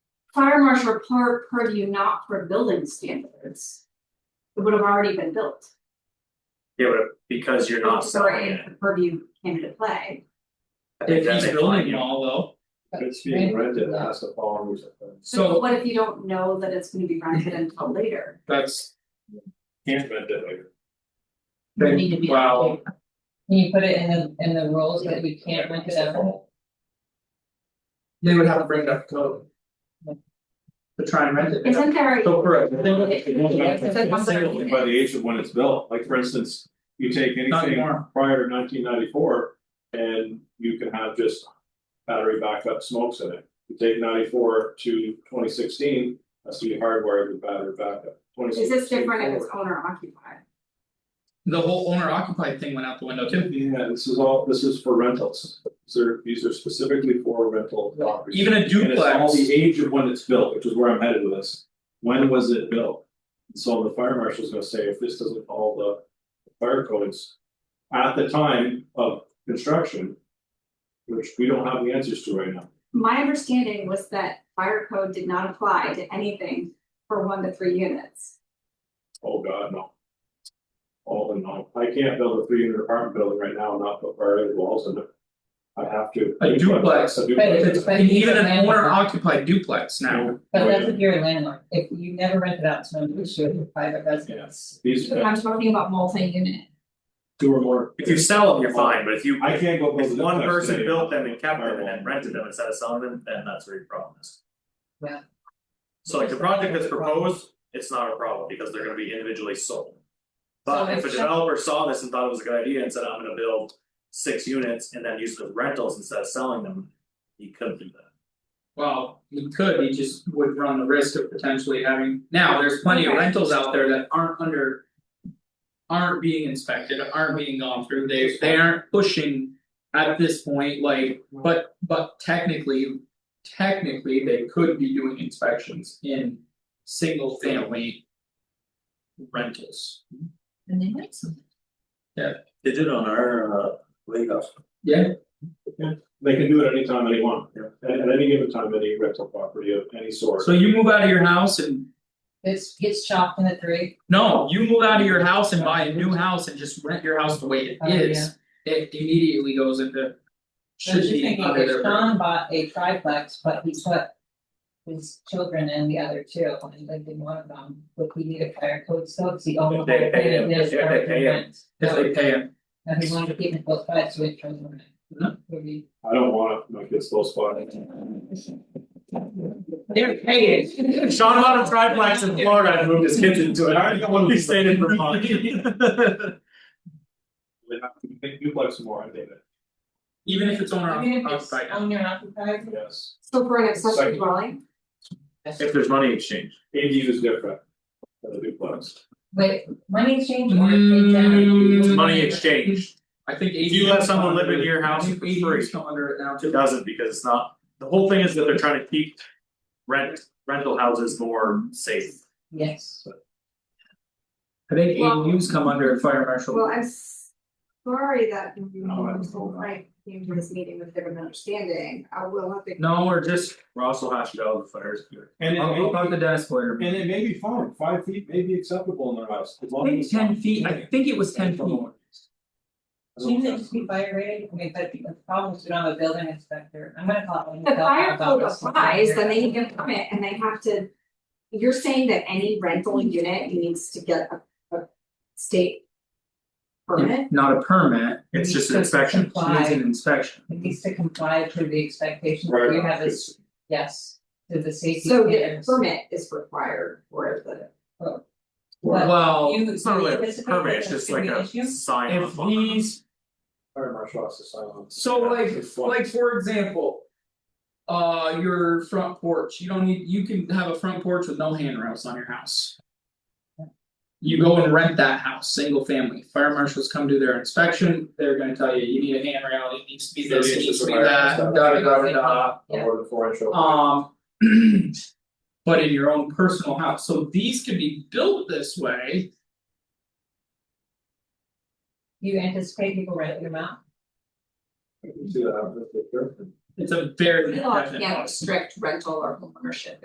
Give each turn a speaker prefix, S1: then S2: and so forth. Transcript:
S1: fire marshal per purview, not for building standards. It would have already been built,
S2: Yeah, but because you're not
S1: so
S2: selling
S1: if
S2: it,
S1: the purview came into play,
S2: I think
S3: If
S2: that
S3: he's
S2: may
S3: building
S2: find
S3: it
S2: you.
S3: all though,
S4: But it's being rented, it has to follow rules. I think.
S1: so
S3: so
S1: what if you don't know that it's gonna be rented until later?
S3: that's,
S4: Can't rent it like.
S5: You need to be.
S3: wow,
S5: Can you put it in the, in the rules that we can't rent it out?
S3: they would have to bring it up to code. To try and rent it,
S1: Isn't there,
S3: so correct, I think
S4: By the age of when it's built, like for instance, you take
S3: Not
S4: anything
S3: anymore.
S4: prior to nineteen ninety four and you can have just. Battery backup smokes in it, you take ninety four to twenty sixteen, that's to be hardwired with battery backup.
S1: is this different if it's owner occupied?
S3: the whole owner occupied thing went out the window too.
S4: Yeah, this is all, this is for rentals, these are, these are specifically for rental properties.
S3: Even a
S4: And it's all
S3: duplex,
S4: the age of when it's built, which is where I'm headed with this. When was it built? And So the fire marshal's gonna say, if this doesn't follow the fire codes. At the time of construction. Which we don't have the answers to right now.
S1: My understanding was that fire code did not apply to anything for one to three units.
S4: Oh, God, no. All in all, I can't build a three unit apartment building right now and not put fire walls in it. I have to.
S3: A duplex.
S4: A
S5: But
S4: duplex.
S3: It's- and even an owner occupied duplex now,
S5: But that's if you're a landlord, if you never rent it out to an issue with private residence.
S4: These
S1: I'm talking about multi-unit.
S4: two or more.
S2: If you sell them, you're fine, but if you,
S4: I can't go. build
S2: if
S4: a
S2: one
S4: duplex
S2: person
S4: today.
S2: built them and kept them and then
S4: Firewall.
S2: rented them instead of selling them, then that's where your problem is.
S5: Yeah.
S2: So like the project that's proposed, it's not a problem because they're gonna be individually sold.
S5: So
S2: But if a
S5: it's-
S2: developer saw this and thought it was a good idea and said, I'm gonna build six units and then use them as rentals instead of selling them, he couldn't do that.
S3: well, he could, he just would run the risk of potentially having, now, there's plenty of rentals out there that aren't under. Aren't being inspected, aren't being gone through, they they aren't pushing at this point, like, but but technically. Technically, they could be doing inspections in single family. Rentals,
S5: And they might something.
S2: They did on our uh legal.
S3: yeah,
S4: They can do it anytime they want, at at any given time, any rental property of any sort.
S3: so you move out of your house and
S5: It's gets chopped into three,
S3: No, you move out of your house and buy a new house and just rent your house the way it
S5: Oh,
S3: is, it immediately goes into.
S5: I
S3: Should
S5: was just
S3: be
S5: thinking,
S3: under
S5: if
S3: their.
S5: Sean bought a triplex, but he put. His children in the other two, and lived in one of them, would he need a fire code still, cause he owned the whole
S2: If they
S5: thing,
S2: pay him,
S5: and there's
S2: yeah, they pay him.
S3: If they pay him,
S5: And he wanted to keep it close by, so he turned around.
S3: No.
S5: Would be-
S4: I don't want my kids low spot.
S5: They're paying.
S2: Sean bought a triplex in Florida and moved his kids into it.
S4: I already got one of
S2: He
S4: these.
S2: stayed in Vermont.
S4: They have to make duplex more, I think,
S3: even if it's owner
S5: Even if it's
S3: occupied,
S5: owner occupied.
S4: yes.
S1: So for an accessory
S4: Second.
S1: dwelling,
S2: If there's money exchange.
S4: ADU is different than a duplex.
S5: Wait, money exchange or pay down?
S3: Mm,
S2: Money exchange,
S3: I think ADUs.
S2: If you let someone
S3: come
S2: live in
S3: under-
S2: your
S3: I
S2: house
S3: think
S2: for
S3: ADUs
S2: free.
S3: come under it now
S2: it
S3: too.
S2: doesn't because it's not, the whole thing is that they're trying to keep. Rent, rental houses more safe.
S5: Yes,
S3: I think
S1: Well-
S3: ADUs come under fire
S1: well,
S3: marshal,
S1: I'm s- sorry that you
S4: No, I don't know.
S1: right came to this meeting with a different understanding, I will have to.
S3: no, or just,
S2: Ross will hash it out with the fires.
S4: And
S3: I'll go talk to Dennis Blair.
S4: and it may be fine, five feet may be acceptable in their house, as
S3: I
S4: long as
S3: think
S4: it's
S3: ten
S4: not-
S3: feet, I think it was ten feet,
S4: As long
S5: shouldn't it
S4: as
S5: just be fire rated, I mean, but the problem is we don't have a building inspector, I'm gonna call it. when
S1: The
S5: we call
S1: fire
S5: it
S1: code
S5: about this.
S1: applies, then they need a permit and they have to. You're saying that any rental unit needs to get a, a state permit?
S3: not a permit,
S2: It's just an inspection.
S3: it is an inspection.
S5: It needs to comply to the expectations
S4: Right,
S5: that you have
S4: it's-
S5: as, yes, to the safety
S1: So the
S5: standards.
S1: permit is required for the.
S5: But
S3: Well,
S5: you-
S2: It's not really a
S5: anticipate
S2: permit,
S5: that
S2: it's
S5: that's
S2: just
S5: gonna
S2: like
S5: be an
S2: a
S5: issue?
S2: sign
S3: if
S2: off on.
S3: he's
S4: Fire marshal has to sign on.
S3: So like,
S4: It's fun.
S3: like for example. Uh, your front porch, you don't need, you can have a front porch with no handrails on your house. You go and rent that house, single family, fire marshals come do their inspection, they're gonna tell you, you need a handrail, it needs to be this, it
S4: Maybe it's
S3: needs
S4: just
S3: to
S4: a
S3: be
S4: fire
S3: that, da
S4: marshal.
S3: da da da
S5: Yeah.
S4: More than four inch.
S3: da. Um. But in your own personal house, so these could be built this way,
S5: You anticipate people renting them out?
S4: You can see that, I'm just a jerk.
S3: it's a very
S1: Law
S3: definite
S1: can't
S3: house.
S1: restrict rental or homeownership.